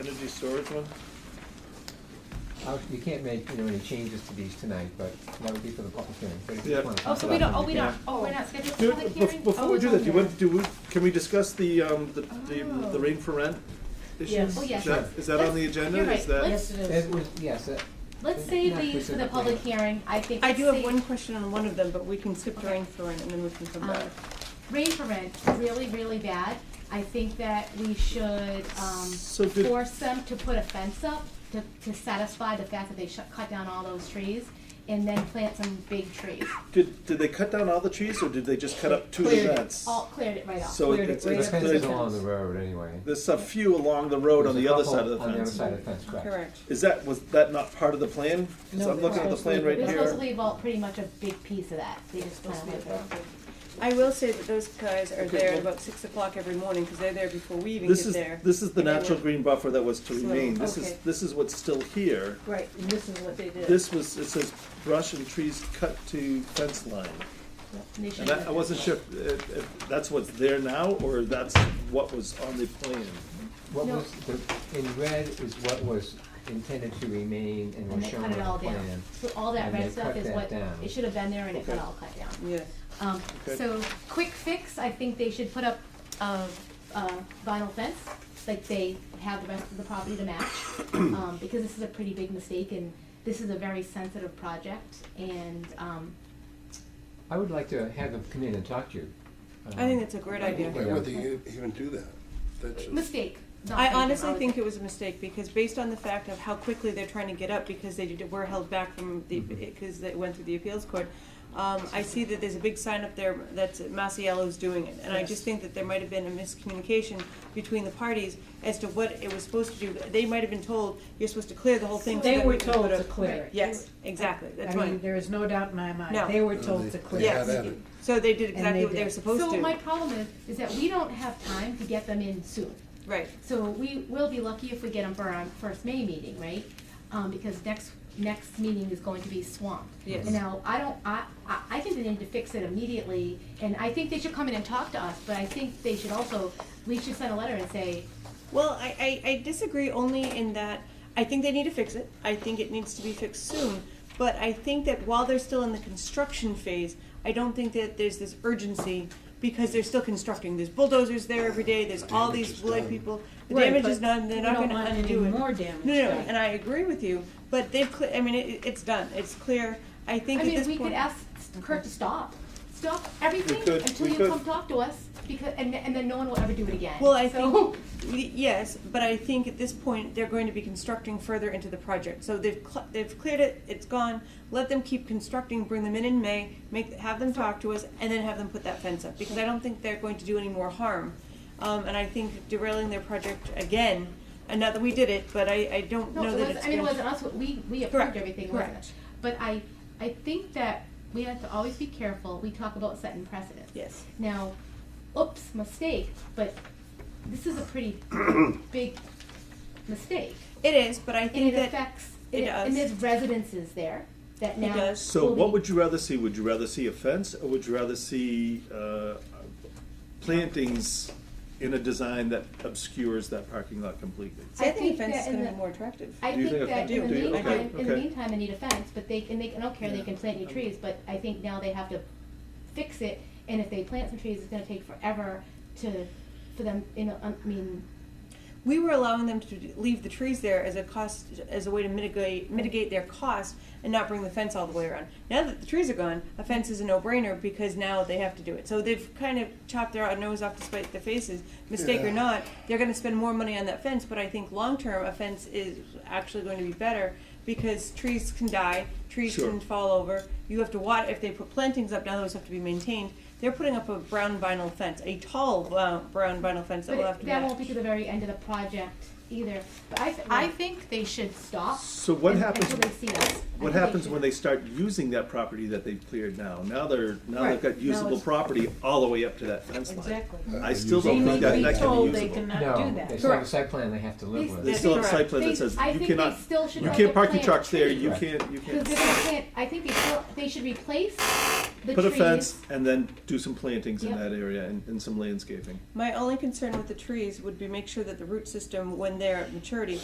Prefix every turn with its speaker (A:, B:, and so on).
A: Energy storage one?
B: Uh, You can't make, you know, any changes to these tonight, but that would be for the public hearing. But if you
A: Yeah.
B: wanna
C: Oh,
B: talk
C: so
B: about
C: we don't,
B: them,
C: oh, we
B: you
C: don't,
B: can.
C: oh, we're not scheduled for
A: Dude,
C: public
A: bef-
C: hearing?
A: Before
C: Oh,
A: we
C: it's
A: do
C: on
A: that, do you
C: there.
A: want, do, we- can we discuss the, um, the, the the
C: Oh.
A: rain for rent issue?
D: Yes.
C: Oh, yes.
A: Is that- Is that on the
C: Let's-
A: agenda?
C: you're right.
A: Is that-
C: Let's-
D: Yes, it is.
B: It was, yes, it-
C: Let's save
B: Not
C: these for the
B: specifically.
C: public hearing, I think.
E: I do have
C: save-
E: one question on one of them, but we can skip the
C: Okay.
E: rain for it and then we can come
A: Ah,
C: Um,
E: back.
C: Rain for rent, really, really bad. I think that we should, um,
A: So did-
C: force them to put a fence up to, to satisfy the fact that they shut, cut down all those trees and then plant some big trees.
A: Did, did they cut down all the trees or did they just cut up two
B: Cleared it.
A: events?
C: All cleared it right off.
A: So
D: Cleared it
A: it's,
D: right
A: it's,
B: the
D: up to
B: fence is all on
A: there's
B: the road anyway.
A: there's a few along the road on
B: There's a
A: the other
B: couple
A: side of the
B: On the other
A: fence.
B: side of the fence, correct.
E: Correct.
A: Is that, was that not part of the plan? 'Cause
D: No,
A: I'm looking at the
D: supposed to
A: plan
D: be-
A: right
C: They're supposed to
A: here.
C: leave out pretty much a big piece of that, they just
D: Supposed
C: kind
D: to be
C: of like.
D: adopted.
E: I will say that those guys are
A: Okay,
E: there
A: well-
E: at about six o'clock every morning, because they're there before we even
A: This
E: get
A: is,
E: there.
A: this is the
E: And they
A: natural
E: were-
A: green buffer that was to
E: So,
A: remain. This is,
E: okay.
A: this is what's still here.
D: Right, and this is what they did.
A: This was, it says brush and trees cut to fence line.
C: they
A: And
C: shouldn't
A: that,
C: have
A: I wasn't
C: done
A: sure if, if if that's what's there now, or that's what was on the plan.
B: What
C: No.
B: was, the, in red is what was intended to remain and
C: that. And
B: was
C: they
B: shown
C: cut
B: on the
C: it all down.
B: plan.
C: So all that
B: and they
C: red stuff
B: cut
C: is
B: that
C: what,
B: down.
C: it should have been there and it got
A: Okay.
C: all cut down.
E: Yeah.
C: Um,
A: Okay.
C: so, quick fix, I think they should put up a, a vinyl fence, like they have the rest of the property to match. Um, because this is a pretty big mistake and this is a very sensitive project and, um,
B: I would like to have them come in and talk to you. Um,
E: I think that's a great idea.
F: Why would they e- even do that? That's just.
C: mistake. not
E: I
C: thinking
E: honestly
C: about
E: think it was a mistake, because based on the fact of how quickly they're trying to get up, because they did- were held back from the,
B: Mhm.
E: because they went through the appeals court, um, I see that there's a big sign up there that's Masiello's doing it, and I just think that there might have been a miscommunication between the parties as to what it was supposed to do. They might have been told, you're supposed to clear the whole thing. so
D: They
E: that
D: were
E: we can
D: told
E: put a-"
D: to clear it.
E: Yes, exactly, that's
D: I mean,
E: right.
D: there is no doubt in my mind.
E: No.
D: They were
F: No,
D: told
F: they-
D: to
F: they
D: clear
E: Yes.
F: had
D: it.
F: at it.
E: So they did exactly
D: they
E: what they
D: did.
E: were supposed
C: So my
E: to,
C: problem is, is that we don't have time to get them in soon.
E: right.
C: So we will be lucky if we get them for our first May meeting, right? Um, because next, next meeting is going to be swamped.
E: Yes.
C: And Now, I don't, I, I, I think they need to fix it immediately, and I think they should come in and talk to us, but I think they should also, we should send a letter and say,
E: Well, I, I, I disagree only in that I think they need to fix it. I think it needs to be fixed soon. But I think that while they're still in the construction phase, I don't think that there's this urgency because they're still constructing. There's bulldozers there every day. There's all
F: Damage
E: these
F: is
E: blood
F: done.
E: people. The
D: Right,
E: damage
D: but
E: is done. They're
D: we
E: not
D: don't
E: going to
D: want any
E: undo it.
D: more damage,
E: No, no, no.
D: right.
E: And I agree with you. But they've. Cle- I mean, it, it's done. It's clear. I think
C: I
E: at
C: mean,
E: this
C: we
E: point.
C: could ask Kurt to stop, stop everything
A: could-
C: until
A: we
C: you
A: could.
C: come talk to us, because, and, and then no one will ever do it again.
E: Well, I
C: So-
E: think, y- yes, but I think at this point, they're going to be constructing further into the project. So they've, cl- they've cleared it, it's gone, let them keep constructing, bring them in in May, make, have them talk to us, and then have them put that fence up, because I don't think they're going to do any more harm. Um, and I think derailing their project again, and not that we did it, but I, I don't
C: No,
E: know
C: it
E: that
C: was,
E: it's
C: I mean, it
E: going
C: wasn't
E: to.
C: us, we, we approved
E: Correct,
C: everything, wasn't it?
E: correct.
C: But I, I think that we have to always be careful, we talk about setting precedents.
E: Yes.
C: Now, oops, mistake, but this is a pretty big mistake.
E: It is, but I
C: And
E: think
C: it
E: that,
C: affects,
E: it
C: and
E: does.
C: there's residences there that
E: It
C: now.
E: does.
A: So
C: will
A: what
C: be-
A: would you rather see? Would you rather see a fence, or would you rather see, uh, plantings in a design that obscures that parking lot completely?
E: see, I
C: I
E: think
C: think
E: a fence
C: that
E: is
C: in
E: going to
C: the-
E: be more attractive.
C: I
A: Do you
C: think
A: think
C: that
A: they
C: in the
E: do? Do you? Okay,
C: meantime, in the
A: okay.
C: meantime, they need a fence, but they, and they, I don't care, they
A: Yeah.
C: can plant new trees, but I think now they have to fix it, and if they plant some trees, it's gonna take forever to, for them, you know, I mean,
E: we were allowing them to d- leave the trees there as a cost as a way to mitigate mitigate their cost and not bring the fence all the way around. Now that the trees are gone, a fence is a no-brainer because now they have to do it. So they've kind of chopped their nose off to spite their faces, mistake or
F: Yeah.
E: not. They're going to spend more money on that fence, but I think long-term a fence is actually going to be better because trees can die, trees
A: Sure.
E: can fall over. You have to watch if they put plantings up now; those have to be maintained. They're putting up a brown vinyl fence, a tall uh, brown vinyl fence that will have
C: but
E: to
C: that
E: match.
C: won't be to the very end of the project either. But I, th- I think they should stop.
A: So what
C: un-
A: happens-
C: Until they see us. I think
A: What
C: they
A: happens
C: should-
A: when they start using that property that they've cleared now? Now they're, now they've
E: Right.
A: got usable
D: it's-
A: property all the way up to that fence line.
D: Exactly.
A: I still
D: They
A: don't
D: need
A: think
D: to
A: Uh, that,
D: be
A: that
D: told
A: can be
D: they
A: usable.
D: cannot do
B: No, they
D: that.
B: still have a
E: Correct.
B: site plan they have to live
C: They-
B: with.
A: They still have a site
E: Correct.
A: plan
C: They-
A: that says,
C: I
A: you
C: think they
A: cannot,
C: still should
A: you
C: let
A: can't
C: them
A: park your
C: plant
A: trucks there,
C: trees.
A: you
B: Right.
A: can't, you
C: Cause
A: can't.
C: they can't, I think they still, they should replace the trees.
A: Put a fence and then do some plantings in
C: Yep.
A: that area and, and some landscaping.
E: My only concern with the trees would be make sure that the root system, when their maturity.